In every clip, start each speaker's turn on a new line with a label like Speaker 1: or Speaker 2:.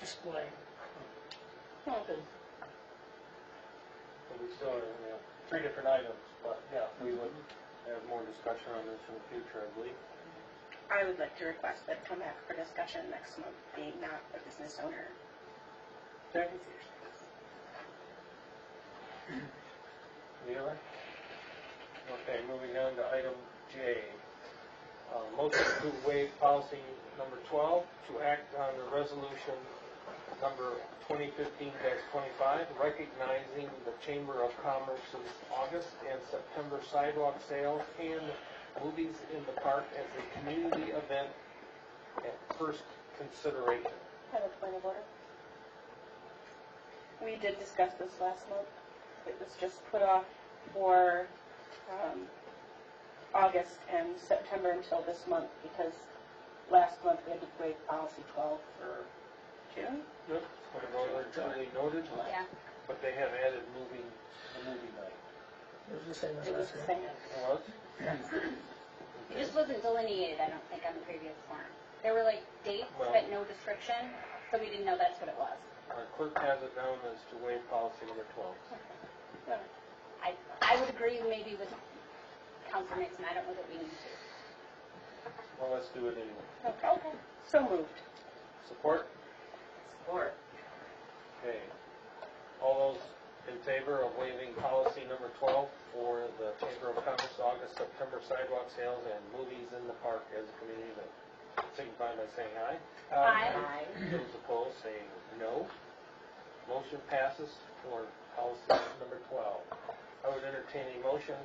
Speaker 1: display.
Speaker 2: Second.
Speaker 3: But we still, have, you know, three different items, but yeah, we would have more discussion on this in the future, I believe.
Speaker 2: I would like to request that come back for discussion next month, being not a business owner.
Speaker 3: Mueller? Okay, moving on to item J. Uh, Motion to waive policy number 12 to act on the resolution number 2015-25, recognizing the Chamber of Commerce's August and September sidewalk sales and movies in the park as a community event at first consideration.
Speaker 2: Have a point of order. We did discuss this last month. It was just put off for um, August and September until this month because last month we had to waive policy 12 for June.
Speaker 3: Yep. Originally noted,
Speaker 2: Yeah.
Speaker 3: but they have added moving, the movie night.
Speaker 1: It was the same as
Speaker 2: It was
Speaker 1: last
Speaker 2: the
Speaker 1: one.
Speaker 2: same.
Speaker 3: Was?
Speaker 4: It just wasn't delineated, I don't think, on the previous form. There were like dates,
Speaker 3: Well-
Speaker 4: but no description, so we didn't know that's what it was.
Speaker 3: Our clerk has it down as to waive policy number 12.
Speaker 4: I, I would agree maybe with Council Nixon, I don't know that we need to.
Speaker 3: Well, let's do it anyway.
Speaker 2: Okay. So moved.
Speaker 3: Support?
Speaker 2: Support.
Speaker 3: Okay. All those in favor of waiving policy number 12 for the Chamber of Commerce August, September sidewalk sales and movies in the park as a community event, signify by saying aye.
Speaker 4: Aye.
Speaker 3: Those opposed, say no. Motion passes for policy number 12. I would entertain a motion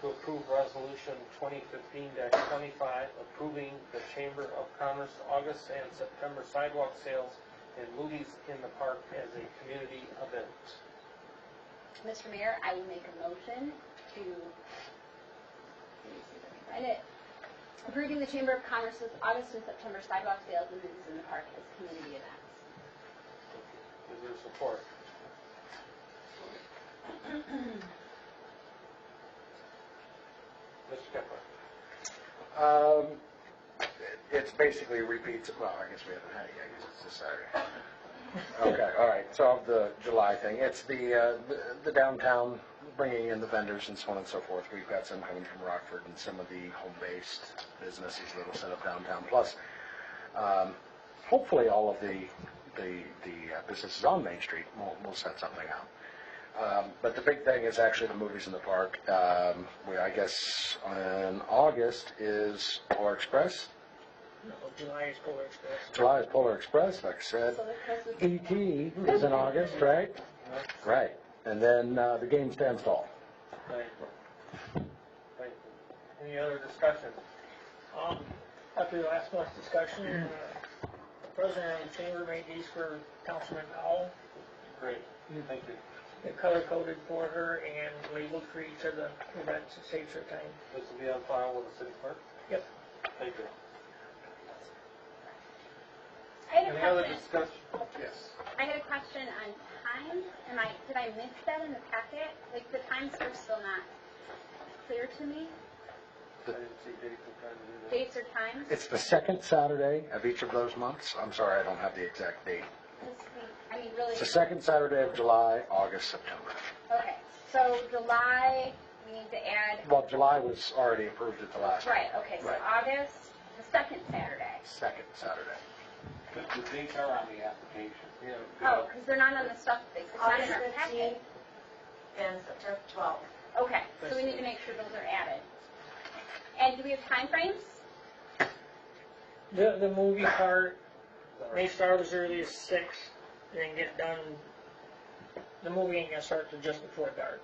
Speaker 3: to approve Resolution 2015-25, approving the Chamber of Commerce August and September sidewalk sales and movies in the park as a community event.
Speaker 4: Mr. Mayor, I will make a motion to, and it, approving the Chamber of Commerce's August and September sidewalk sales and events in the park as community events.
Speaker 3: Is there support? Mr. Kepler?
Speaker 5: Um, it's basically repeats, well, I guess we haven't had it yet, I guess it's this Saturday. Okay, all right, so of the July thing, it's the, uh, the- the downtown bringing in the vendors and so on and so forth. We've got some coming from Rockford and some of the home-based businesses that'll set up downtown, plus, um, hopefully all of the, the, the uh, businesses on Main Street will, will set something up. Um, But the big thing is actually the movies in the park. Um, we, I guess in August is Polar Express.
Speaker 1: No, July is Polar Express.
Speaker 5: July is Polar Express, like I said.
Speaker 4: So this was
Speaker 5: E.T. is in August, right? Right. And then uh, the game stands tall.
Speaker 3: Thank you. Thank you. Any other discussion?
Speaker 1: Um, after last month's discussion, uh, the president and chamber made these for Councilman Owl.
Speaker 3: Great, thank you.
Speaker 1: They're color-coded for her and labeled for each of the events. It saves her time.
Speaker 3: This will be on file with the city clerk?
Speaker 1: Yep.
Speaker 3: Thank you.
Speaker 4: I had a
Speaker 3: Any other
Speaker 4: question.
Speaker 3: discussion? Yes.
Speaker 4: I had a question on times. Am I, did I miss that in the packet? Like, the times are still not clear to me.
Speaker 3: I didn't see Jason trying to do that.
Speaker 4: Dates or times?
Speaker 5: It's the second Saturday of each of those months. I'm sorry, I don't have the exact date.
Speaker 4: This week, I mean, really,
Speaker 5: It's the second Saturday of July, August, September.
Speaker 4: okay. So July, we need to add,
Speaker 5: Well, July was already approved at the last.
Speaker 4: right, okay, so
Speaker 5: Right.
Speaker 4: August, the second Saturday.
Speaker 5: Second Saturday.
Speaker 6: But the dates are on the application.
Speaker 3: Yeah.
Speaker 4: Oh, because they're not on the stuff, it's not in our
Speaker 7: August
Speaker 4: packet.
Speaker 7: 15th and September 12th.
Speaker 4: Okay, so we need to make sure those are added. And do we have timeframes?
Speaker 1: The, the movie part
Speaker 3: Sorry.
Speaker 1: may start as early as six, and then get done, the movie ain't gonna start till just before dark.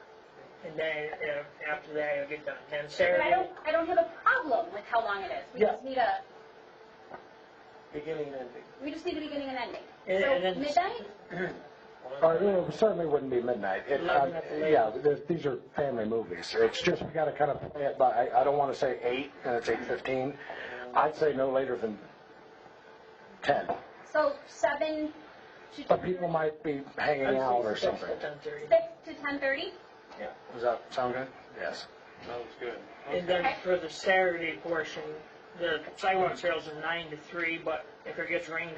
Speaker 1: And then, uh, after that, it'll get done. Then
Speaker 4: But I
Speaker 1: Saturday,
Speaker 4: don't, I don't have a problem with how long it is. We
Speaker 1: Yeah.
Speaker 4: just need a,
Speaker 3: Beginning and ending.
Speaker 4: we just need a beginning and ending.
Speaker 1: and and
Speaker 4: So
Speaker 1: then
Speaker 4: midnight?
Speaker 5: Uh, it certainly wouldn't be midnight. It, um,
Speaker 1: Eleven at the latest.
Speaker 5: yeah, th- these are family movies. It's just we got to kind of play it by. I, I don't want to say eight, and it's eight fifteen. I'd say no later than ten.
Speaker 4: So seven to
Speaker 5: But people might be hanging out or something.
Speaker 1: Ten thirty.
Speaker 4: six to ten thirty.
Speaker 5: Does that sound good? Yes.
Speaker 3: Sounds good.
Speaker 1: And then for the Saturday portion, the sidewalk sales are nine to three, but if it gets rained